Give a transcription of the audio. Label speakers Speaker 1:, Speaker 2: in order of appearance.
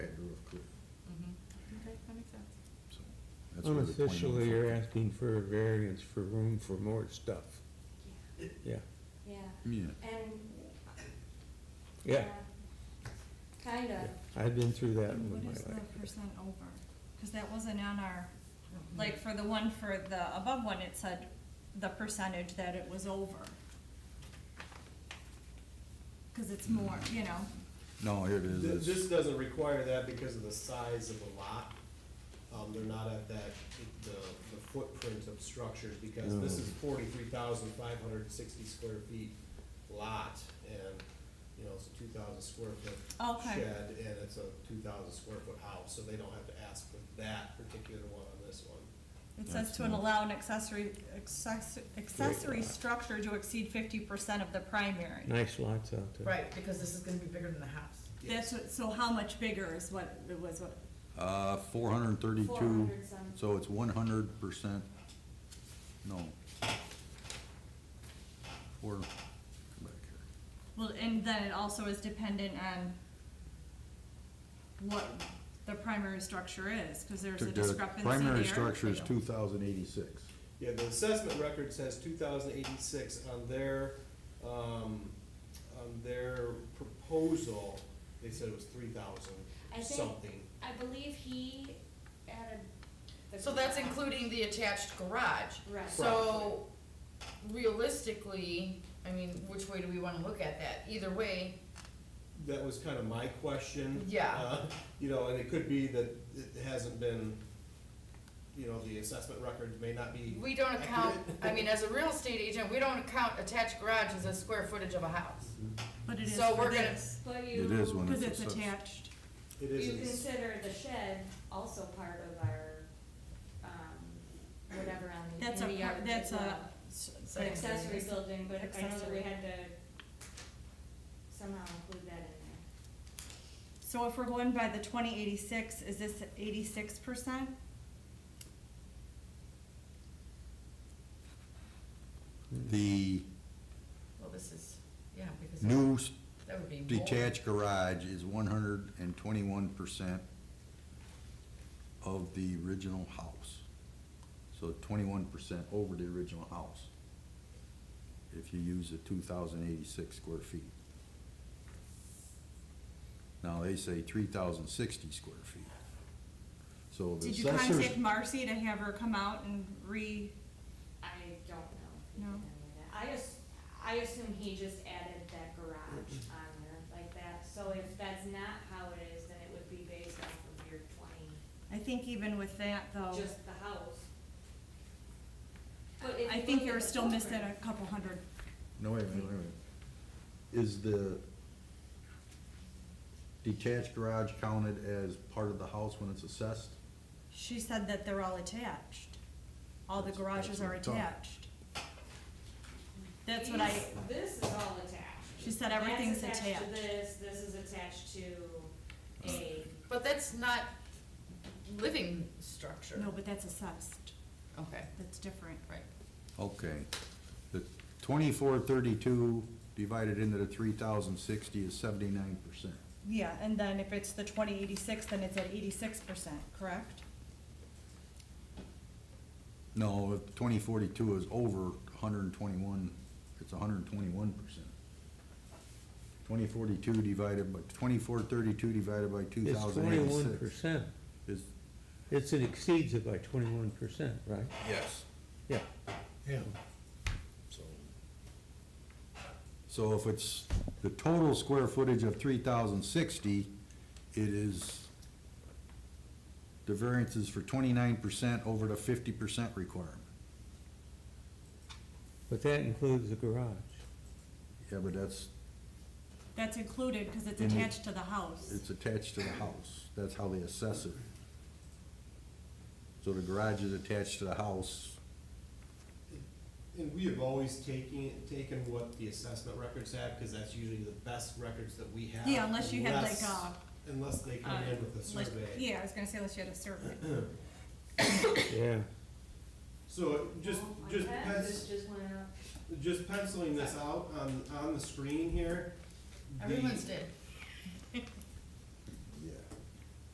Speaker 1: That's where the 20
Speaker 2: Unofficially,
Speaker 1: would
Speaker 2: you're
Speaker 1: come
Speaker 2: asking for a variance for room for more stuff. Yeah,
Speaker 3: Yeah,
Speaker 1: from. Yeah,
Speaker 3: and.
Speaker 2: yeah,
Speaker 3: Kind of,
Speaker 2: I've been through that
Speaker 4: And
Speaker 2: in
Speaker 4: What
Speaker 2: my
Speaker 4: is the
Speaker 2: life.
Speaker 4: percent over? Because that wasn't on our, like, for the one for the above one, it said the percentage that it was over. Because it's
Speaker 2: Hmm.
Speaker 4: more, you know,
Speaker 1: no, here it is.
Speaker 5: Th-
Speaker 1: It's-
Speaker 5: This doesn't require that because of the size of the lot. Um, they're not at that, the, the footprint of structures, because this is forty-three thousand five hundred and sixty square feet lot, and, you know, it's a two thousand square foot
Speaker 4: Okay.
Speaker 5: shed, and it's a two thousand square foot house, so they don't have to ask for that particular one on this one.
Speaker 4: it
Speaker 1: That's
Speaker 4: says to an
Speaker 1: more.
Speaker 4: allow an accessory, access- accessory structure to exceed fifty percent of the primary.
Speaker 2: Nice lots out there.
Speaker 6: Right, because this is gonna be bigger than the house.
Speaker 4: That's what, so how much bigger is what, it was what,
Speaker 1: Uh, four hundred and
Speaker 3: four
Speaker 1: thirty-two,
Speaker 3: hundred some,
Speaker 1: so it's one hundred percent, no. Four, come back here.
Speaker 4: well, and then it also is dependent on what the primary structure is, because there's a
Speaker 1: Took the
Speaker 4: discrepancy there.
Speaker 1: Primary structure is two thousand eighty-six.
Speaker 5: Yeah, the assessment record says two thousand eighty-six on their, um, on their proposal, they said it was three thousand
Speaker 3: I think-
Speaker 5: something.
Speaker 3: I believe he added. the-
Speaker 6: So that's including the attached garage.
Speaker 3: Right.
Speaker 6: So realistically, I mean, which way do we wanna look at that? Either way,
Speaker 5: That was kind of my question.
Speaker 6: Yeah.
Speaker 5: Uh, You know, and it could be that it hasn't been, you know, the assessment records may not be.
Speaker 6: we don't account, I mean, as a real estate agent, we don't account attached garage as a square footage of a house.
Speaker 4: But it is
Speaker 6: So
Speaker 4: for
Speaker 6: we're gonna-
Speaker 4: this,
Speaker 3: But you.
Speaker 1: It is when
Speaker 4: because
Speaker 1: it's
Speaker 4: it's
Speaker 1: assessed.
Speaker 4: attached.
Speaker 5: It
Speaker 3: You
Speaker 5: isn't,
Speaker 3: consider the shed also part of our, um, whatever on the, in
Speaker 4: That's a,
Speaker 3: the
Speaker 4: par-
Speaker 3: yard
Speaker 4: that's
Speaker 3: as
Speaker 4: a.
Speaker 3: well. It's an
Speaker 6: Second.
Speaker 3: accessory building, but I know that we
Speaker 4: Accessory.
Speaker 3: had to somehow include that in there.
Speaker 4: So if we're going by the twenty eighty-six, is this eighty-six percent?
Speaker 1: The
Speaker 6: Well, this is, yeah, because
Speaker 1: new s-
Speaker 6: that would be more.
Speaker 1: detached garage is one hundred and twenty-one percent of the original house. So twenty-one percent over the original house. If you use the two thousand eighty-six square feet. Now, they say three thousand sixty square feet. So the
Speaker 4: Did you
Speaker 1: assessor's-
Speaker 4: contact Marcy to have her come out and re,
Speaker 3: I don't know. if he
Speaker 4: No.
Speaker 3: did any of that. I as, I assume he just added that garage on there like that, so if that's not how it is, then it would be based off of your twenty,
Speaker 4: I think even with that though,
Speaker 3: just the house. But if
Speaker 4: I
Speaker 3: you
Speaker 4: think
Speaker 3: look
Speaker 4: you're
Speaker 3: at the
Speaker 4: still missing a
Speaker 3: footprint-
Speaker 4: couple hundred.
Speaker 1: No, wait a minute, wait a minute. Is the detached garage counted as part of the house when it's assessed?
Speaker 4: She said that they're all attached. All the
Speaker 1: That's- that's
Speaker 4: garages
Speaker 1: what
Speaker 4: are
Speaker 1: I'm talking-
Speaker 4: attached. That's what I,
Speaker 3: These- This is all attached.
Speaker 4: She said
Speaker 3: That's
Speaker 4: everything's
Speaker 3: to
Speaker 4: attached.
Speaker 3: this, this is attached to a,
Speaker 6: But that's not living structure.
Speaker 4: no, but that's assessed.
Speaker 6: Okay,
Speaker 4: That's different.
Speaker 6: right.
Speaker 1: Okay. The twenty-four thirty-two divided into the three thousand sixty is seventy-nine percent.
Speaker 4: Yeah, and then if it's the twenty eighty-six, then it's at eighty-six percent, correct?
Speaker 1: No, if twenty forty-two is over hundred and twenty-one, it's hundred and twenty-one percent. Twenty forty-two divided by, twenty-four thirty-two divided by two
Speaker 2: It's
Speaker 1: thousand eighty-six.
Speaker 2: twenty-one percent.
Speaker 1: Is,
Speaker 2: It's, it exceeds it by twenty-one percent, right?
Speaker 1: yes.
Speaker 2: Yeah. Yeah.
Speaker 1: So. So if it's the total square footage of three thousand sixty, it is, the variance is for twenty-nine percent over the fifty percent requirement.
Speaker 2: But that includes the garage.
Speaker 1: Yeah, but that's,
Speaker 4: That's included because it's
Speaker 1: Mhm.
Speaker 4: attached to the house.
Speaker 1: it's attached to the house, that's how they assess it. So the garage is attached to the house,
Speaker 5: and we have always taken, taken what the assessment records have, because that's usually the best records that we have.
Speaker 4: Yeah, unless you had like
Speaker 5: unless-
Speaker 4: a.
Speaker 5: Unless they come in with a
Speaker 4: like-
Speaker 5: survey.
Speaker 4: Yeah, I was gonna say unless you had a survey.
Speaker 2: Yeah.
Speaker 5: So just,
Speaker 3: Oh, my
Speaker 5: just
Speaker 3: God,
Speaker 5: pens-
Speaker 3: This just went up.
Speaker 5: just penciling this out on, on the screen here. the-
Speaker 6: Everyone's did.